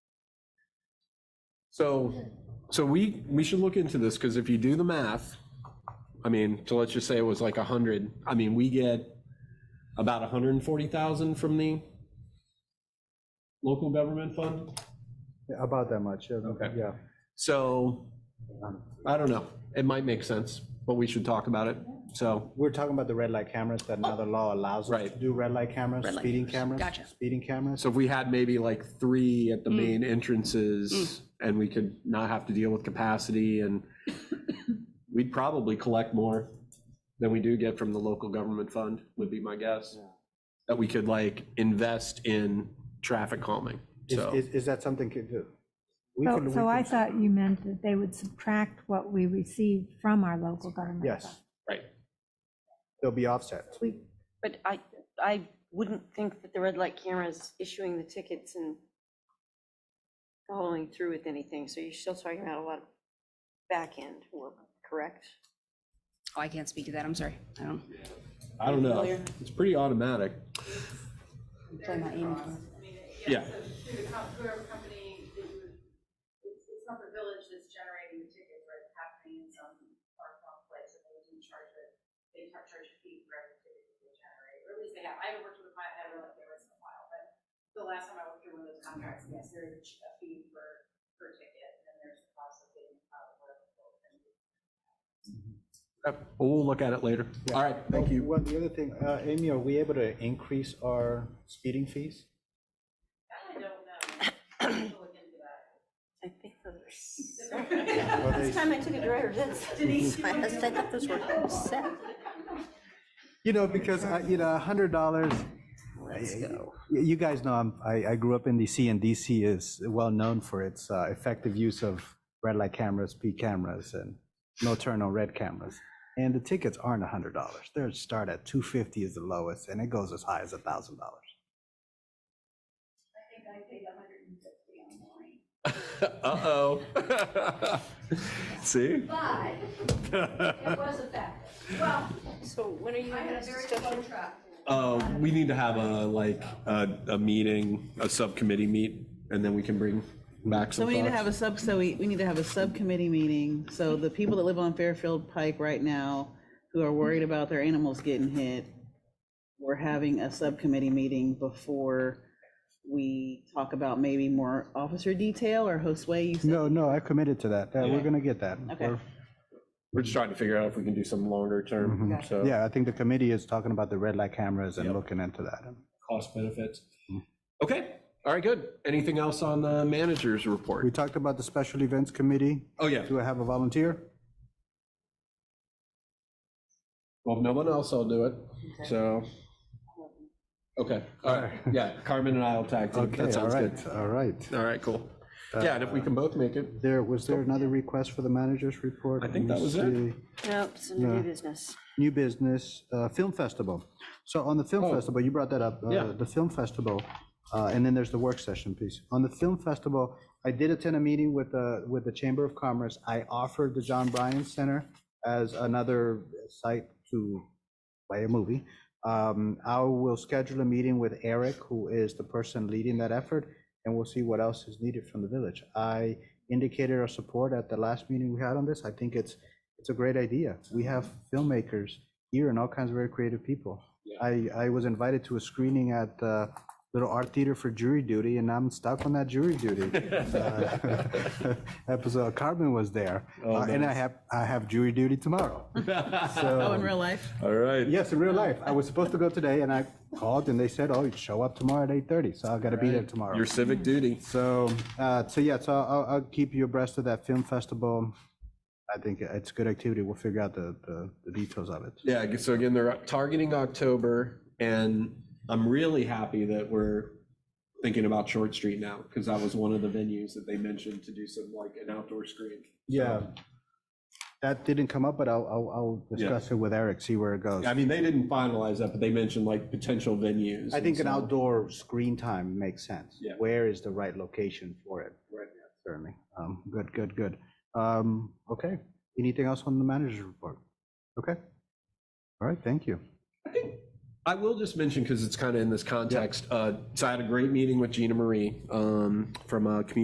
So, so we, we should look into this, because if you do the math, I mean, so let's just say it was like a hundred, I mean, we get about a hundred and forty thousand from the local government fund. Yeah, About that much, yeah, Okay. yeah. So, I don't know, it might make sense, but we should talk about it, so, We're talking about the red light cameras, that another law allows us to Right. do red light cameras, Red light speeding cameras. cameras. Gotcha. Speeding cameras. so if we had maybe like three at the main entrances, and we could not have to deal with capacity, and we'd probably collect more than we do get from the local government fund, would be my guess. Yeah. That we could like invest in traffic calming, Is, so. is- is that something could do? We So, could- so we I could- thought you meant that they would subtract what we receive from our local government. fund. Yes. Right. They'll be offset. We, but I, I wouldn't think that the red light cameras issuing the tickets and following through with anything, so you're still talking about a lot of back-end work, correct? Oh, I can't speak to that, I'm sorry. I don't, I don't know. Familiar. It's pretty automatic. play my aim card. I mean, Yeah. So through the com- whoever company that you, it's, it's not the village that's generating the tickets, right? It's happening in some far off place, and they do charge it, they tar- charge a fee for every ticket that they generate, or at least they have, I haven't worked with a client, I don't know if they were in a while, but the last time I worked through one of those contracts, yes, there is a ch- a fee per, per ticket, and then there's a cost of getting, uh, whatever. the bill is. Uh, We'll look at it later. All right, thank you. Well, the other thing, uh, Amy, are we able to increase our speeding fees? That I don't know, I have to look into that. I think those Well, are. they- Last time I took a driver's ed, my husband, I thought those were set. You know, because, I- you know, a hundred dollars. Let's go. Y- You guys know, I'm- I, I grew up in DC and DC is well-known for its uh, effective use of red light cameras, P cameras, and no turn on red cameras. And the tickets aren't a hundred dollars. They're start at two fifty is the lowest and it goes as high as a thousand dollars. Uh-oh. See? So when are you having this discussion? Uh, we need to have a, like, a, a meeting, a subcommittee meet, and then we can bring back So some we need to have thoughts. a sub, so we, we need to have a subcommittee meeting, so the people that live on Fairfield Pike right now, who are worried about their animals getting hit, we're having a subcommittee meeting before we talk about maybe more officer detail or Josue, you said, No, no, I committed to that. Uh, We're gonna get that. Okay. We're- We're just trying to figure out if we can do some longer term, so. Mm-hmm. Yeah, I think the committee is talking about the red light cameras and looking into that. Cost benefits. Okay, all right, good. Anything else on the manager's We report? talked about the special events committee. Oh, yeah. Do I have a volunteer? Well, if no one else, I'll do it, so. Okay, all right, yeah, Carmen and I will tag team. Okay, That all sounds good. right, all right. All right, cool. Yeah, and if we can both make it. There, was there another request for the manager's report? I think Let that me was it. see. No, it's a new business. New business, uh, film festival. So on the film Oh. festival, you brought that up. uh, Yeah. The film festival, uh, and then there's the work session piece. On the film festival, I did attend a meeting with the, with the Chamber of Commerce. I offered the John Bryan Center as another site to play a movie. Um, I will schedule a meeting with Eric, who is the person leading that effort, and we'll see what else is needed from the village. I indicated our support at the last meeting we had on this. I think it's, it's a great idea. We have filmmakers here and all kinds of very creative people. I, I was invited to a screening at the Little Art Theater for jury duty, and I'm stuck on that jury duty. Uh, Episode, Carmen was there, Uh, and I have, I have jury duty tomorrow. oh, So- in real life? All right. Yes, in real life. I was supposed to go today and I called and they said, oh, you show up tomorrow at 8:30. So I gotta be there tomorrow. Your civic duty. So, uh, so yeah, so I'll, I'll keep you abreast of that film festival. I think it's good activity. We'll figure out the, the- the details of it. Yeah, ag- so again, they're targeting October, and I'm really happy that we're thinking about Short Street now, because that was one of the venues that they mentioned to do some, like, an outdoor screen. Yeah. That didn't come up, but I'll, I'll, I'll Yeah. discuss it with Eric, see where it goes. I mean, they didn't finalize that, but they mentioned like potential venues. I think an and so- outdoor screen time makes sense. Yeah. Where is the right location for it? Right. Certainly. Um, Good, good, good. Um, Okay. Anything else on the manager's report? Okay. All right, thank you. I will just mention, because it's kind of in this context, uh, so I had a great meeting with Gina Marie um, from uh, Community